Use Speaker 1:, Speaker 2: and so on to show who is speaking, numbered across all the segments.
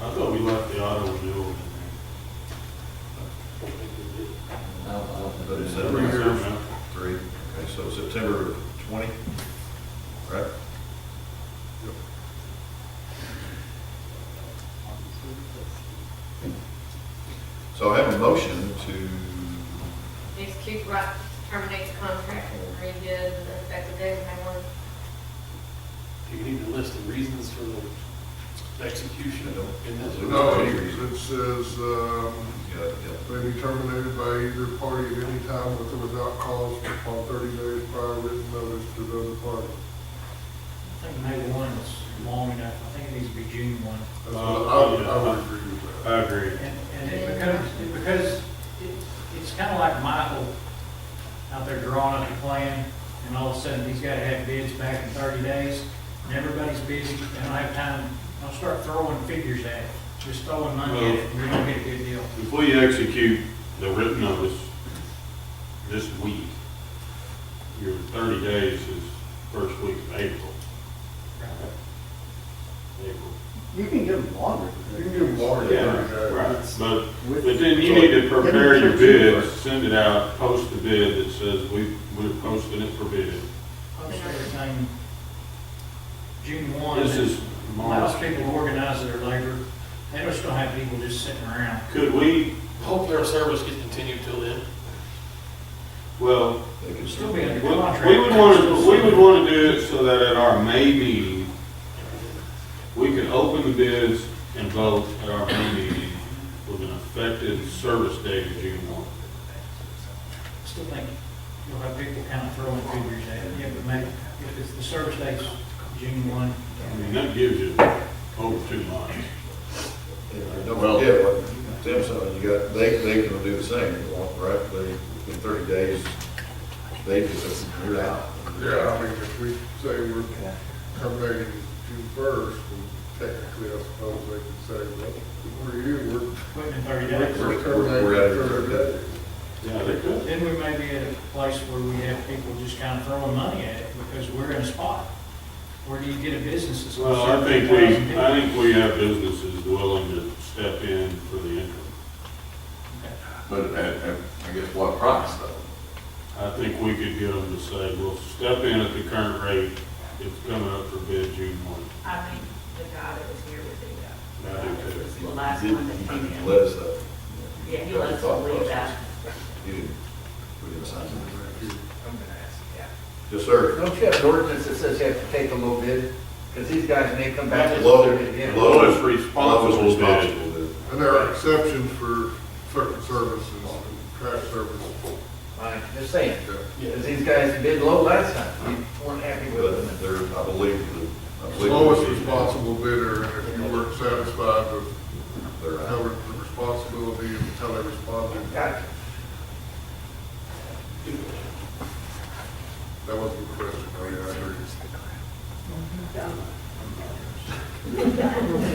Speaker 1: I thought we left the auto renewal in
Speaker 2: I don't, I
Speaker 3: But
Speaker 2: don't know.
Speaker 3: is
Speaker 1: there.
Speaker 3: that
Speaker 1: Every year, man.
Speaker 3: Three, okay, so September twenty, right? So I have a motion to,
Speaker 4: Execute right, terminate the contract and redo the effective date of May one.
Speaker 5: Do you need to list the reasons for the execution
Speaker 3: I don't-
Speaker 5: in this?
Speaker 6: No, it says, um,
Speaker 3: yeah, yeah,
Speaker 6: may be terminated by either party at any time with or without cause upon thirty days prior written notice to the other party.
Speaker 7: I think May one is long enough, I think it needs to be June one.
Speaker 6: That's what I would, I would agree with that.
Speaker 1: I agree.
Speaker 7: And, and it becomes, it because it, it's kind of like Michael out there drawing up a plan, and all of a sudden, he's got to have bids back in thirty days, and everybody's busy, and I don't have time, I'll start throwing figures at it, just throwing money at it, and we don't get a good deal.
Speaker 1: If we execute the written notice this week, your thirty days is first week of April. April.
Speaker 8: You can give them longer.
Speaker 6: You can give more than
Speaker 1: Yeah,
Speaker 6: thirty
Speaker 1: right,
Speaker 6: days.
Speaker 1: but,
Speaker 8: With-
Speaker 1: but then you need to prepare your bid, send it out, post the bid that says we, we're posting it for bid.
Speaker 7: Post everything June one.
Speaker 1: This is
Speaker 7: Allows
Speaker 1: March.
Speaker 7: people to organize their labor, they just don't have people just sitting around.
Speaker 1: Could we,
Speaker 5: Hopefully our service gets continued till then.
Speaker 1: well,
Speaker 3: they can still,
Speaker 7: Still be under
Speaker 1: We would
Speaker 7: contract.
Speaker 1: want to, we would want to do it so that at our May meeting, we could open the bids and vote at our May meeting with an effective service date of June one.
Speaker 7: Still think you'll have people kind of throwing figures at it, yeah, but maybe, if it's the service date's June one,
Speaker 1: I mean, that gives you over two months.
Speaker 3: and don't forget what Tim said, you got, they, they can do the same, if they want, right? They, in thirty days, they just, you're out.
Speaker 6: Yeah, I mean, if we say we're terminating June first, technically, I suppose they can say, well, we're you,
Speaker 7: quit in thirty
Speaker 6: we're,
Speaker 7: days.
Speaker 6: we're
Speaker 3: We're- we're out of
Speaker 6: terminating
Speaker 3: here.
Speaker 6: thirty days.
Speaker 1: Yeah, they could.
Speaker 7: Then we may be at a place where we have people just kind of throwing money at it because we're in a spot. Where do you get a business that's gonna
Speaker 1: Well, I
Speaker 7: serve
Speaker 1: think
Speaker 7: 3,000
Speaker 1: we,
Speaker 7: people?
Speaker 1: I think we have businesses willing to step in for the interim.
Speaker 2: But at, at, I guess what price though?
Speaker 1: I think we could get them to say, we'll step in at the current rate, it's coming up for bid June one.
Speaker 9: I think the guy that was here would do that.
Speaker 1: I do too.
Speaker 9: The last one that came in.
Speaker 3: Let us, uh,
Speaker 9: Yeah, he lets us leave that.
Speaker 3: you didn't, we didn't sign it.
Speaker 10: I'm gonna ask, yeah.
Speaker 3: Yes, sir.
Speaker 10: Don't you have an ordinance that says you have to take a little bid? Because these guys may come back and
Speaker 3: Low-
Speaker 10: do it again.
Speaker 3: low-
Speaker 1: Lowest responsible
Speaker 3: Lowest
Speaker 1: bid.
Speaker 3: responsible bid.
Speaker 6: And there are exceptions for certain services, and trash services.
Speaker 10: I'm just saying, because these guys bid low last time, we weren't happy with them.
Speaker 3: But there, I believe, the- I
Speaker 6: It's
Speaker 3: believe.
Speaker 6: Lowest responsible bidder, and if you weren't satisfied with
Speaker 3: They're out.
Speaker 6: covered the responsibility of how they responded,
Speaker 10: Gotcha.
Speaker 6: that wasn't the question, I mean, I agree.
Speaker 10: Sorry.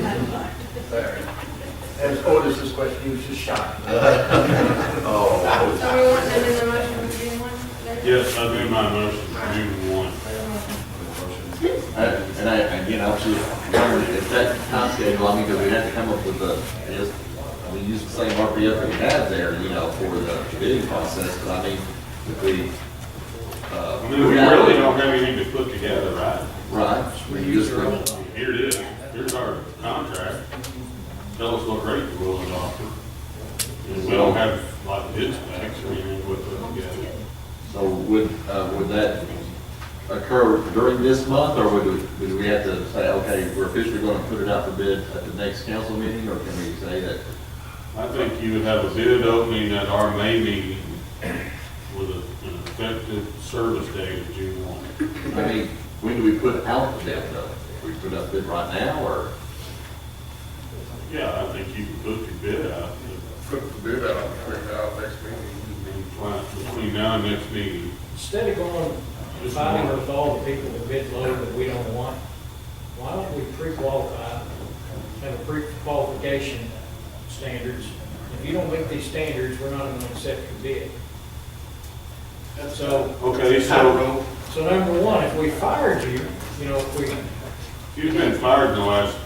Speaker 10: oh, As Otis's question, he was just shocked.
Speaker 3: Oh,
Speaker 4: So we want them in the motion for June one? David?
Speaker 1: Yes, I do my motion, June one.
Speaker 2: And and I, again, I was just wondering if that time schedule, I mean, because we had to come up with the, is, we use the same RPF that we had there, you know, for the bidding process, but I mean, if we, uh.
Speaker 1: I mean, we really don't have anything to put together, right?
Speaker 2: Right, we use the,
Speaker 1: Here it is, here's our contract, tell us what rate you're willing to offer. And we don't have like bid specs or anything with it together.
Speaker 2: so would, uh, would that occur during this month, or would, we- would we have to say, okay, we're officially gonna put it out for bid at the next council meeting, or can we say that
Speaker 1: I think you would have a bid opening at our May meeting with a- an effective service date of June one.
Speaker 2: I mean, when do we put out the bid though? We put up bid right now or?
Speaker 1: Yeah, I think you can put your bid out,
Speaker 6: Put the bid out, bring it out next meeting.
Speaker 1: and between now and next meeting.
Speaker 7: Instead of going, fighting with all the people that bid low that we don't want, why don't we pre-qualify, have a pre-qualification standards? If you don't meet these standards, we're not gonna accept your bid. So,
Speaker 1: Okay, so.
Speaker 7: so number one, if we fired you, you know, if we
Speaker 1: If you've been fired in the last